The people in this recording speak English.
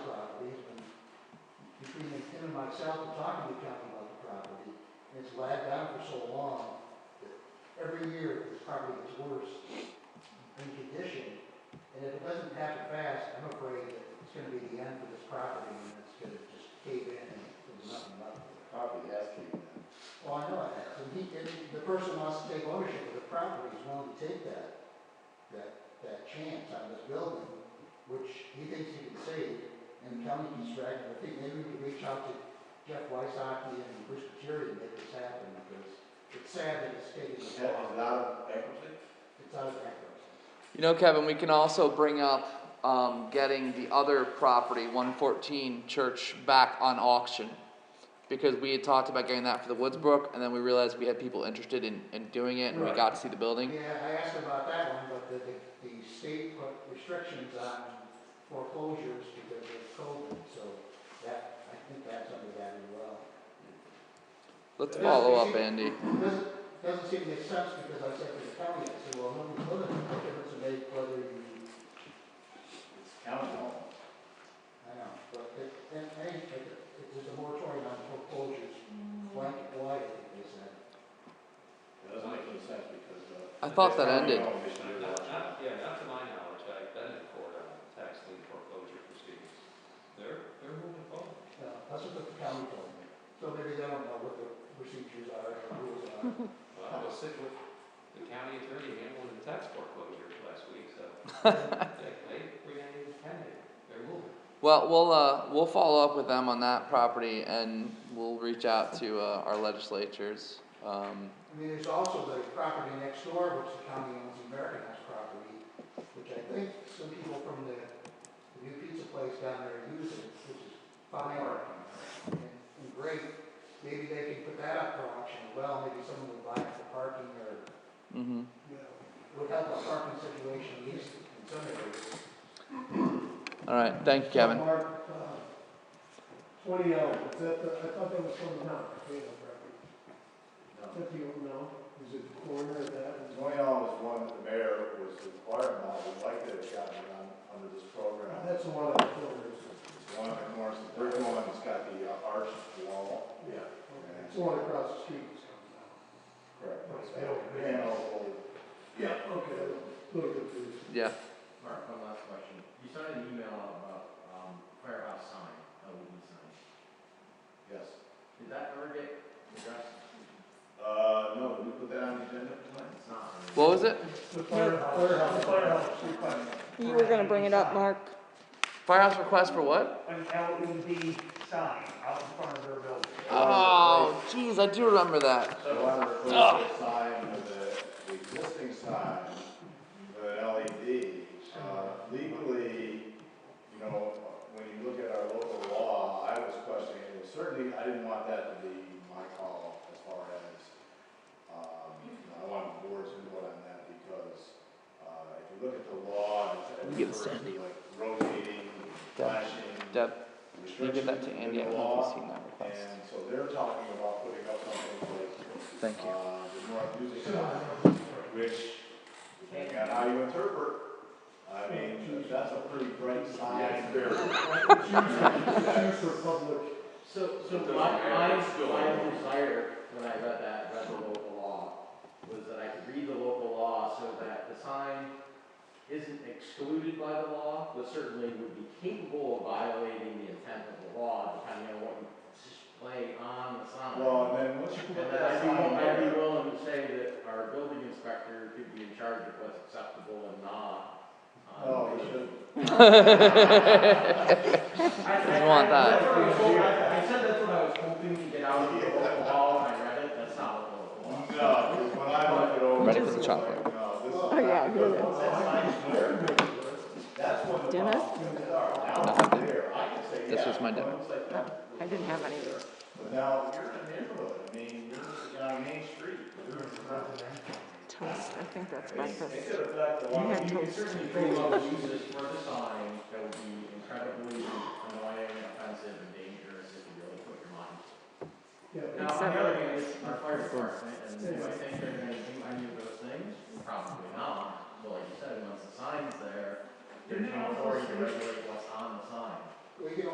including myself, and talking to the county about the property, and it's lagged on for so long that every year, this property gets worse in condition. And if it doesn't happen fast, I'm afraid that it's gonna be the end for this property, and it's gonna just cave in and there's nothing left. Probably has to, Well, I know it has, and he, and the person wants to take ownership of the property, he's willing to take that, that, that chance on this building, which he thinks he can save, and the county can strike, I think maybe we could reach out to Jeff Wysocki and Bruce Materi to make this happen, because it's sad that it's taking Is this that long, was out of bankruptcy? it's out of bankruptcy. You know, Kevin, we can also bring up, um, getting the other property, one fourteen church, back on auction. Because we had talked about getting that for the Woodsbrook, and then we realized we had people interested in, in doing it, and we Right. got to see the building. Yeah, I asked about that one, but the, the- the state put restrictions on foreclosures because of COVID, so that, I think that's under that as well. Let's Yeah. follow up, Andy. Doesn't, doesn't seem to make sense because I said to the county, I said, well, no, no, what difference it make whether you, It's county home. I know, but it, and, and it, it was a moratorium on foreclosures, blanket wide, I think they said. It doesn't make any sense because, uh. I thought that county ended. home, they should have Not, watched not, yeah, not to my knowledge, I've been in court on tax lien foreclosure proceedings. They're, they're moving forward. Uh, that's what the county told me. So maybe they don't know what the procedures are, or rules are. Well, I was sitting with the county attorney handling the tax foreclosures last week, so they, they remain pending. They're moving. Well, we'll, uh, we'll follow up with them on that property, and we'll reach out to, uh, our legislatures, um, I mean, there's also the property next door, which the county owns, the American House property, which I think some people from the, the new pizza place down there are using, which is fine and, and great. Maybe they can put that up for auction as well, maybe someone would buy it for parking or, mhm. you know, would help our parking situation at least in some areas. Alright, thank you, Kevin. Mark, uh, twenty hours, is that, the- I thought that was from the mountain, potato property. Is it. that the, old mound? is it the corner of that? No. Twenty dollars was one that the mayor was inquiring about, would like to have gotten it on, under this program. Uh, That's the one on the corner, isn't it? It's one of the corners, the third one, it's got the uh, arched wall. Yeah. Okay, It's the one across the street. it's on Correct. Right, it's built. And also, the mound. Yeah, okay, a little confused. Yeah, Mark, one last question. You sent an email about, um, firehouse sign, LED sign. yes. Did that ever get addressed? Uh, no, did we put that on the agenda tonight? It's not. I mean- what was it? The firehouse, firehouse, firehouse, street firehouse. You were gonna bring it up, Mark. Firehouse request for what? an LED sign out in front of their building. Oh, jeez, I do remember that. So I want to replace the sign with the, the existing sign with an LED. Uh, legally, you know, when you look at our local law, I was questioning, it. certainly, I didn't want that to be my call as far as, um, you know, I want boards to vote on that because, uh, if you look at the law, me it's, get it's this to Andy. like rotating, Deb, flashing, Deb, can you give that to restrictions Andy? I in the don't know if law. he's seen that And request. so they're talking about putting up something like Thank you. uh, the North Music Center, which, depending on how you interpret, I mean, that's a pretty bright sign. Shoot for public, So, It so doesn't my, my, matter, it's still my illegal. desire, when I read that, read the local law, was that I could read the local law so that the sign isn't excluded by the law, but certainly would be capable of violating the intent of the law, depending on what you display on the sign. Well, and then once you And put then I'd that be, sign I'd there, be willing to say that our building inspector could be in charge of what's acceptable and not. um, oh, you should. I, I, You want I- that. that's what I was hoping- I, I said that's what I was hoping to get out of the local law, and I read it, that's not what the No, local law. 'cause when I look it over. Ready for the it's like, chocolate. no, this is- Oh, yeah, here it because once that sign's there, That's when the Dennis? problems are. Now Nothing. it's there, I can say, This yeah, was my but dinner. it's like, that. I didn't have any. But now, you're in a neighborhood, I mean, you're on Main Street, you're. Toast, I think that's It breakfast. could affect a lot of You had people. You could toast. certainly pretty well use this for the sign, that would be incredibly annoying, offensive, and dangerous if you really put your mind. to yeah. it. Now, on the other hand, it's our fire department, and do I think they're gonna do any of those things? Probably not, but like you said, once the sign's there, there's no authority to regulate what's on the sign. We can